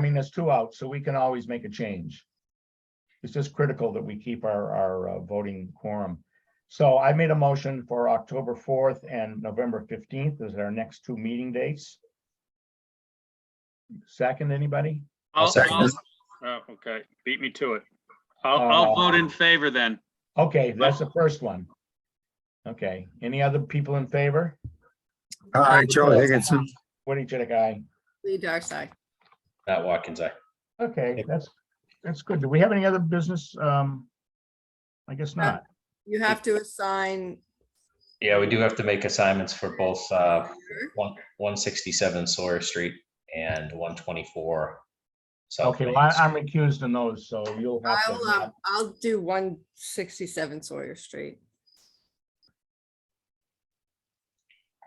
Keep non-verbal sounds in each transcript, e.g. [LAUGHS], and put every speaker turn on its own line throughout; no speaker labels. putting us two out, so we can always make a change. It's just critical that we keep our, our uh, voting quorum. So I made a motion for October fourth and November fifteenth as our next two meeting dates. Second, anybody?
I'll-
second it.
I'll- Oh, okay, beat me to it. I'll, I'll
Uh,
vote in favor then.
Okay, that's the first one. Okay, any other people in favor?
Hi, Charlie Higginson.
Woody Chitik, aye.
Lee Darcey.
Matt Watkins, aye.
Okay, that's, that's good. Do we have any other business? Um, I guess not.
You have to assign.
Yeah, we do have to make assignments for both uh, one- 167 Sawyer Street and 124. South
Okay,
Main
well, I-
Street.
I'm recused in those, so you'll have
I'll, uh,
to.
I'll do one sixty-seven Sawyer Street.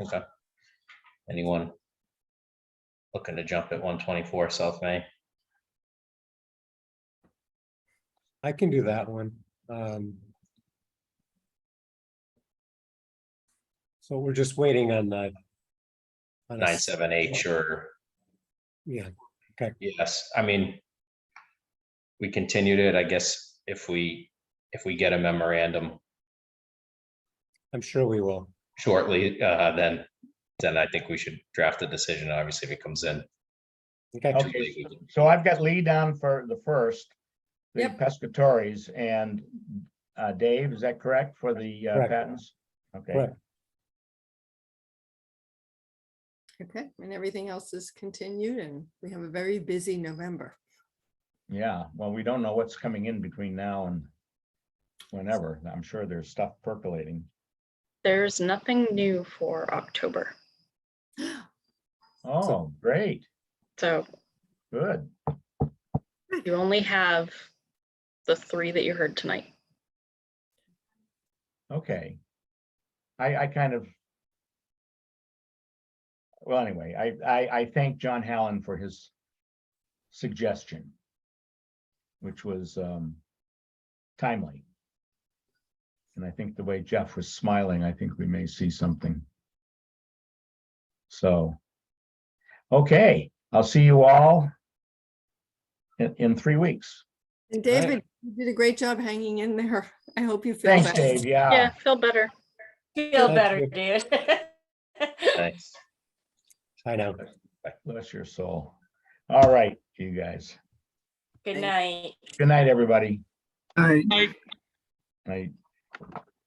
Okay. Anyone looking to jump at 124 South Main?
I can do that one. Um, So we're just waiting on that. on a s-
978 or,
Yeah,
yes, I mean, we continued it, I guess, if we, if we get a memorandum
I'm sure we will.
shortly, uh, then, then I think we should draft a decision, obviously, if it comes in.
Okay,
too
Okay.
late, we can-
So I've got Lee down for the first, the
Yep.
pescatories and uh, Dave, is that correct for the uh,
Correct.
patents? Okay,
Correct.
Okay, and everything else is continued and we have a very busy November.
yeah, well, we don't know what's coming in between now and whenever. I'm sure there's stuff percolating.
There's nothing new for October.
Oh, great,
So
good.
you only have the three that you heard tonight.
Okay. I, I kind of. Well, anyway, I, I, I thank John Hallen for his suggestion. Which was, um, timely. And I think the way Jeff was smiling, I think we may see something. So. Okay, I'll see you all. In, in three weeks.
And David, you did a great job hanging in there. [LAUGHS] I hope you feel.
Thanks,
better.
Dave, yeah.
Yeah, feel better.
Feel
Thank
better,
you.
dude. [LAUGHS]
Thanks.
I know.
Bless your soul. All right, you guys.
Good night.
Good night, everybody.
Hi.
Aye.
Night.